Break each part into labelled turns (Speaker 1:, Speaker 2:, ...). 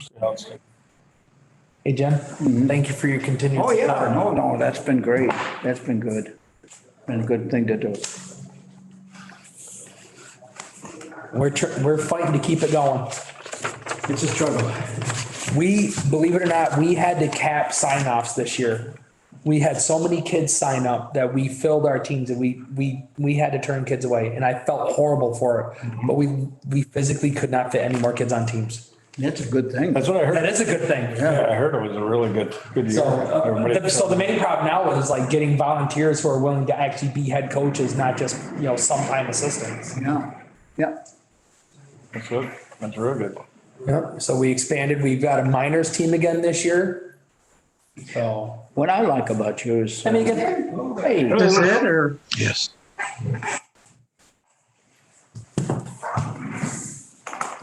Speaker 1: See how it's going.
Speaker 2: Hey, Jen, thank you for your continued.
Speaker 3: Mm-hmm. Oh, yeah,
Speaker 2: support.
Speaker 3: no, no, that's been great. That's been good. Been a good thing to do.
Speaker 2: We're, tr- we're fighting to keep it going.
Speaker 3: It's a struggle.
Speaker 2: We, believe it or not, we had to cap sign offs this year. We had so many kids sign up that we filled our teams and we, we, we had to turn kids away and I felt horrible for it.
Speaker 3: Mm-hmm.
Speaker 2: But we, we physically could not fit any more kids on teams.
Speaker 3: That's a good thing.
Speaker 1: That's what I
Speaker 2: That
Speaker 1: heard.
Speaker 2: is a good thing.
Speaker 1: Yeah, I heard it was a really good, good year.
Speaker 2: So, uh,
Speaker 1: Everybody-
Speaker 2: so the main problem now is like getting volunteers who are willing to actually be head coaches, not just, you know, sometime assistants.
Speaker 3: Yeah, yeah.
Speaker 1: That's good. That's real good.
Speaker 2: Yep. So we expanded. We've got a minors team again this year. So,
Speaker 3: What I like about you is,
Speaker 2: I
Speaker 3: uh,
Speaker 2: mean, again,
Speaker 3: hey,
Speaker 4: Is it or?
Speaker 5: Yes.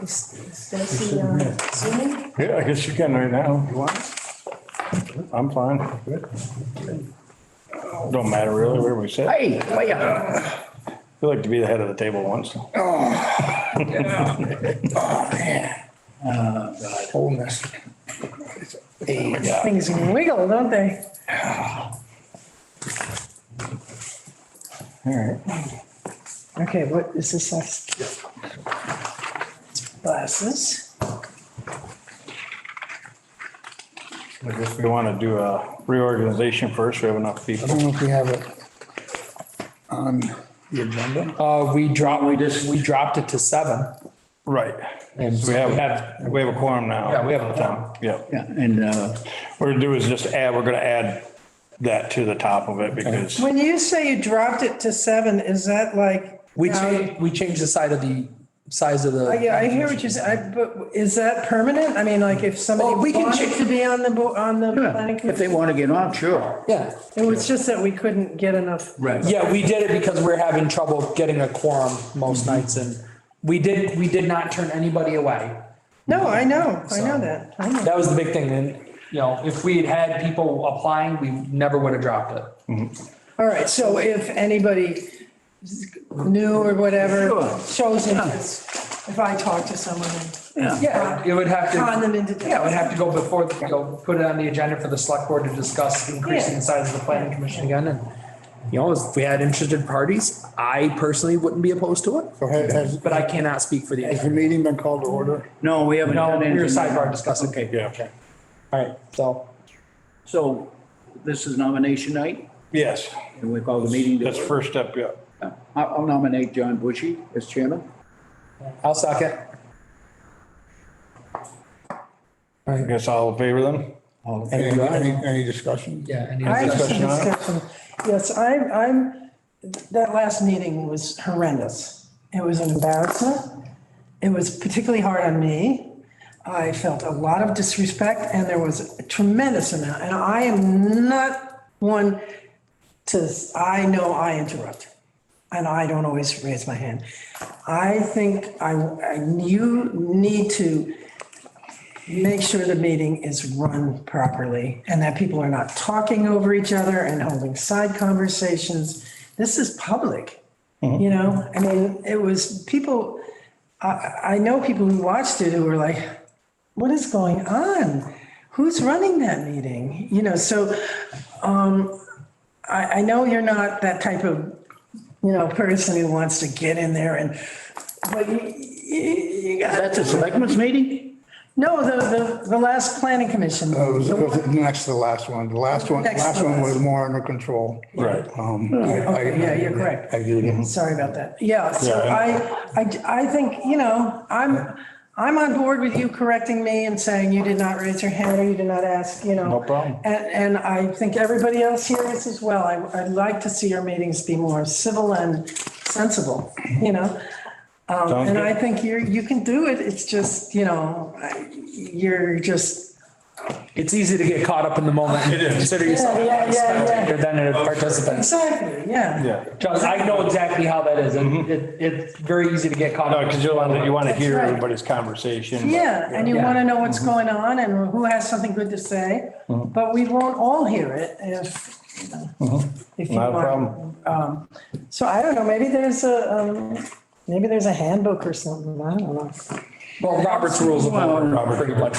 Speaker 6: Is is Stacy uh, zooming?
Speaker 1: Yeah, I guess you can right now. You want? I'm fine. Don't matter really where we sit. I
Speaker 3: hey, wait up.
Speaker 1: like to be the head of the table once.
Speaker 2: wholeness.
Speaker 3: Oh
Speaker 6: Things wiggle, don't they? All right. Okay, what is this last? Glasses.
Speaker 1: I guess we want to do a reorganization first. We have enough
Speaker 3: I
Speaker 1: people.
Speaker 3: don't know if we have it on the agenda.
Speaker 2: Uh, we dropped, we just, we dropped it to seven.
Speaker 1: Right.
Speaker 2: And
Speaker 1: So we have, we have a quorum now. Um,
Speaker 2: Yeah, we have a quorum.
Speaker 1: Yeah.
Speaker 3: Yeah, and, uh,
Speaker 1: What we're gonna do is just add, we're gonna add that to the top of it because
Speaker 7: When you say you dropped it to seven, is that like?
Speaker 2: We
Speaker 7: now-
Speaker 2: changed, we changed the size of the, size of the.
Speaker 7: Uh, Yeah, I hear what you're saying, but is that permanent? I mean, like if somebody
Speaker 2: Well, we can
Speaker 7: wanted
Speaker 2: check-
Speaker 7: to be on the, bo- on the
Speaker 3: yeah,
Speaker 7: planning
Speaker 3: if they
Speaker 7: commission?
Speaker 3: want to get on, sure.
Speaker 2: Yeah,
Speaker 7: It was just that we couldn't get enough.
Speaker 3: Right.
Speaker 2: yeah, we did it because we're having trouble getting a quorum most nights and we did, we did not turn anybody away.
Speaker 7: No, I know, I know that. I know.
Speaker 2: That was the big thing. And, you know, if we had had people applying, we never would have dropped it.
Speaker 7: All right, so if anybody new or whatever
Speaker 3: Sure.
Speaker 7: shows interest, if I talk to someone and
Speaker 2: Yeah, it would have to.
Speaker 7: con them into.
Speaker 2: Yeah, it would have to go before, the- you know, put it on the agenda for the select board to discuss increasing the size of the planning commission again and. You know, if we had interested parties, I personally wouldn't be opposed to it,
Speaker 8: So has, has-
Speaker 2: but I cannot speak for the.
Speaker 8: has the meeting been called to order?
Speaker 3: No, we haven't.
Speaker 2: No,
Speaker 3: done
Speaker 2: we were
Speaker 3: anything.
Speaker 2: sidebar discussing.
Speaker 3: Okay,
Speaker 1: yeah,
Speaker 2: Alright, so.
Speaker 3: so this is nomination night,
Speaker 1: yes,
Speaker 3: and we call the meeting to
Speaker 1: that's
Speaker 3: order.
Speaker 1: first step. Yeah.
Speaker 3: I- I'll nominate John Bushy as chairman.
Speaker 2: I'll suck it.
Speaker 1: I guess all in favor then?
Speaker 8: Any, any, any discussion?
Speaker 2: Yeah. any
Speaker 7: I have
Speaker 2: other-
Speaker 7: some
Speaker 1: Discussion on it?
Speaker 7: discussion. Yes, I'm, I'm, that last meeting was horrendous. It was an embarrassment. It was particularly hard on me. I felt a lot of disrespect and there was a tremendous amount. And I am not one to, I know I interrupt. And I don't always raise my hand. I think I, I- you need to make sure the meeting is run properly and that people are not talking over each other and holding side conversations. This is public, you know? I mean, it was people, I, I know people who watched it who were like, what is going on? Who's running that meeting? You know, so um, I, I know you're not that type of, you know, person who wants to get in there and, but you, you, you got
Speaker 3: That's a selectmen's meeting? Oh,
Speaker 7: no, the, the, the last planning commission.
Speaker 8: Uh, It was, it was next to the last one. The last one,
Speaker 7: Next to
Speaker 8: last one
Speaker 7: last.
Speaker 8: was more under control.
Speaker 1: Right. Uh-huh.
Speaker 8: Um, I- I-
Speaker 7: okay, yeah, you're correct.
Speaker 8: I agree.
Speaker 7: Sorry about that. Yeah, so
Speaker 1: Yeah,
Speaker 7: I, I, I think, you know, I'm, I'm on board with you correcting me and saying you did not raise your hand or you did not ask, you know.
Speaker 1: No problem.
Speaker 7: And, and I think everybody else here is as well. I, I'd like to see your meetings be more civil and sensible, you know? Um,
Speaker 1: Sounds
Speaker 7: and
Speaker 1: good.
Speaker 7: I think you're, you can do it. It's just, you know, I- you're just.
Speaker 2: It's easy to get caught up in the moment. and Consider yourself.
Speaker 7: Yeah, yeah,
Speaker 2: a
Speaker 7: yeah, yeah.
Speaker 2: spectator Than a participant.
Speaker 7: Exactly, yeah.
Speaker 1: Yeah.
Speaker 2: Because I know exactly how that is. It, it, it's very easy to get caught
Speaker 1: No,
Speaker 2: up.
Speaker 1: because you want to, you want to
Speaker 7: That's
Speaker 1: hear
Speaker 7: right.
Speaker 1: everybody's conversation.
Speaker 7: Yeah, and you
Speaker 2: Yeah.
Speaker 7: want to know what's
Speaker 1: Mm-hmm.
Speaker 7: going on and who has something good to say, but we won't all hear it if, you know, if you
Speaker 1: Mm-hmm. Not a
Speaker 7: want.
Speaker 1: problem.
Speaker 7: Um, So I don't know, maybe there's a, um, maybe there's a handbook or something, I don't know.
Speaker 2: Well, Robert's rules of order, pretty much.